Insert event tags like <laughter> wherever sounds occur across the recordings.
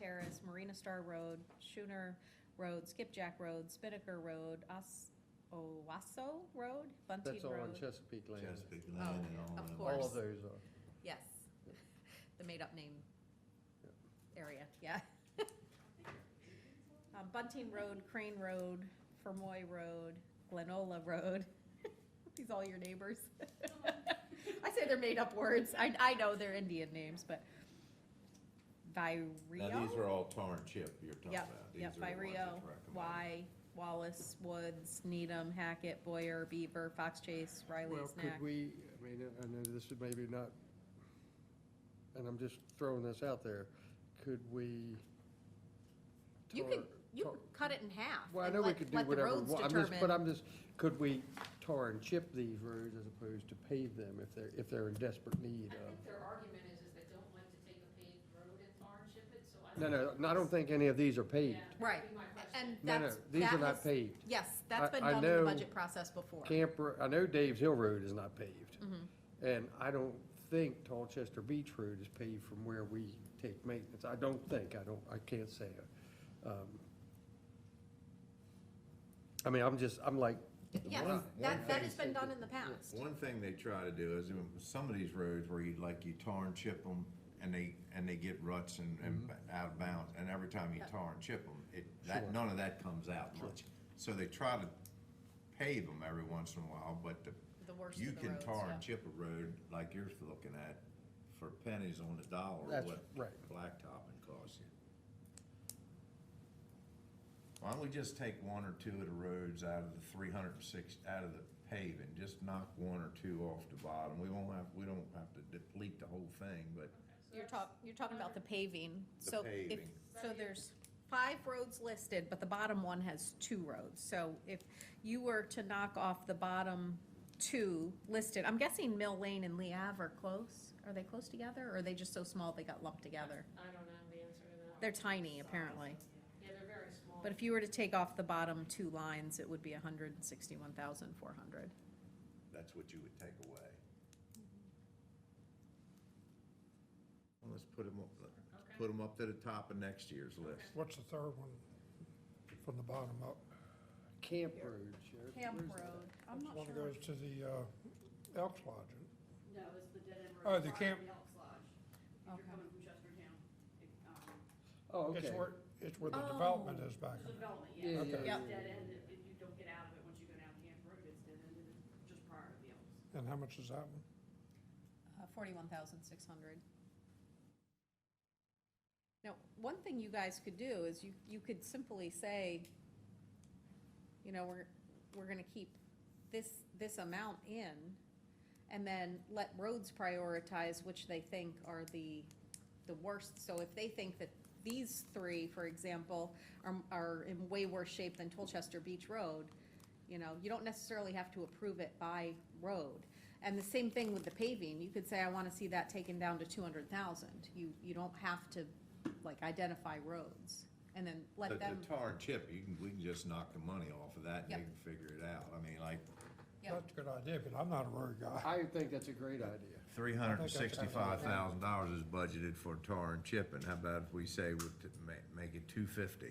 Terrace, Marina Star Road, Schooner Road, Skipjack Road, Spinnaker Road, Os, Owasso Road, Bunting That's all on Road. Chesapeake land. Chesapeake Land and all of that. course. All of those are. Yes, <laughs> the made-up name Yeah. area, yeah. <laughs> Uh, Bunting Road, Crane Road, Fermoy Road, Glenola Road. <laughs> These all your neighbors. <laughs> I say they're made-up words. I, I know they're Indian names, but Now, these Vireo, are all tar and chip you're talking Yep, about. These yep, are the ones that's Vireo, recommended. Y, Wallace, Woods, Needham, Hackett, Boyer, Beaver, Fox Chase, Riley, Well, Snack. could we, I mean, I know this is maybe not, and I'm just throwing this out there, could we? You tar- could, you tar- could cut it in half. Well, I and know we let- could do let the whatever, roads we want. I'm just, but determine. I'm just, could we tar and chip these roads as opposed to pave them if they're, if they're in desperate need I of? think their argument is, is they don't like to take a paved road and tar and chip it, so I. No, no, think no, I don't think any of these are paved. Yeah, that would Right. be my question. And No, no, that's, these that are has, not paved. yes, that's I- been I done in the know budget process before. Camper, I know Dave's Hill Road is not paved. Mm-hmm. And I don't think Tall Chester Beach Road is paved from where we take maintenance. I don't think, I don't, I can't say. um, I mean, I'm just, I'm like, Yes, that, one- one that thing- has been done in the past. One thing they try to do is, um, some of these roads where you, like, you tar and chip them, and they, and they get ruts and, and b- out of bounds, and every time you Yeah. tar and chip them, it, Sure. that, none of that comes out much. So they try to pave them every once in a while, but the, The worst you of the can roads, tar yeah. and chip a road like you're looking at for pennies on the dollar, That's what right. blacktopping costs you. Why don't we just take one or two of the roads out of the three hundred and six, out of the paving, just knock one or two off the bottom, we won't have, we don't have to deplete the whole thing, but You're talk, you're talking about the paving, The so if, paving. so there's five roads listed, but the bottom one has two roads. So if you were to knock off the bottom two listed, I'm guessing Mill Lane and Lee Ave are close, are they close together, or are they just so small they got lumped together? I don't know the answer to that. They're tiny, apparently. Yeah, they're very small. But if you were to take off the bottom two lines, it would be hundred and sixty-one thousand four hundred. that's what you would take away. Well, let's put them up, let's put them up to the top of next year's list. What's the third one from the bottom up? Camp Road, Sheriff. Camp where's that? Road, I'm not One sure. goes to the uh, Elks Lodge. No, it's the dead end Oh, road. the prior to camp- the Elks Lodge. If Okay. you're coming from Chestertown, it, um, Oh, okay. It's where, it's where the Oh. development is back. there's a development, Yeah, yeah. yeah, It's yeah, dead yeah, end, if if you don't get out of it, once you go down Camp Road, it's dead end, and it's just prior to the Elks. And how much is that one? uh, Forty-one thousand six hundred. Now, one thing you guys could do is you, you could simply say, you know, we're, we're gonna keep this, this amount in, and then let roads prioritize which they think are the, the worst. So if they think that these three, for example, are, are in way worse shape than Tolchester Beach Road, you know, you don't necessarily have to approve it by road. And the same thing with the paving, you could say, I wanna see that taken down to two hundred thousand. You, you don't have to, like, identify roads, and then The let the them. tar and chip, you can, we can just knock the money off of that and Yep. you can figure it out. I mean, like, Yeah. That's a good idea, but I'm not a road guy. I think that's a great idea. three hundred and sixty-five thousand dollars is budgeted for tar and chipping. How about if we say we make, make it two fifty?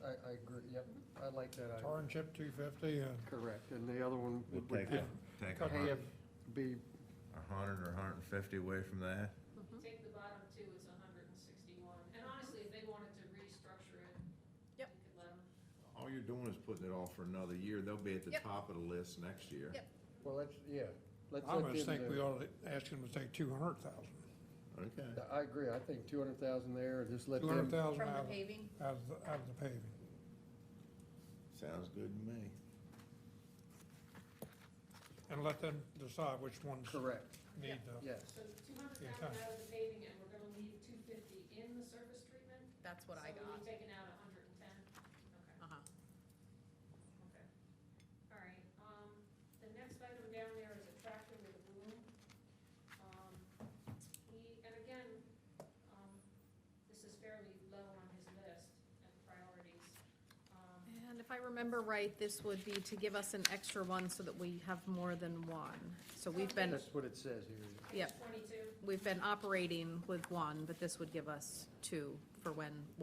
I, I agree, yep, I like that idea. Tar and chip two fifty and Correct, and the other one We'll would take, be, a- take a have, hun- be, a hundred or a hundred and fifty away from that. If you take the bottom two, it's hundred and sixty-one. And honestly, if they wanted to restructure it, Yep. you could let them. All you're doing is putting it off for another year. They'll be at the Yep. top of the list next year. Yep. well, let's, yeah, let's I let almost them think do we it. ought to ask him to take two hundred thousand. Okay. I agree, I think two hundred thousand there, just let Two them. hundred thousand From the out of, paving? out of, the- out of the paving. Sounds good to me. And let them decide which ones Correct, need the, yes. So two hundred Yeah, thousand kinda. out of the paving, and we're gonna leave two fifty in the surface treatment? That's what I So we'll be got. taking out hundred and ten? Okay. Uh-huh. Okay. All right, um, the next item down there is a tractor with a boom. Um, he, and again, um, this is fairly low on his list of priorities. Um, And if I remember right, this would be to give us an extra one so that we have more than one. So we've been, That's what it says here. I Yep. guess twenty-two, we've been operating with one, but this would give us two for when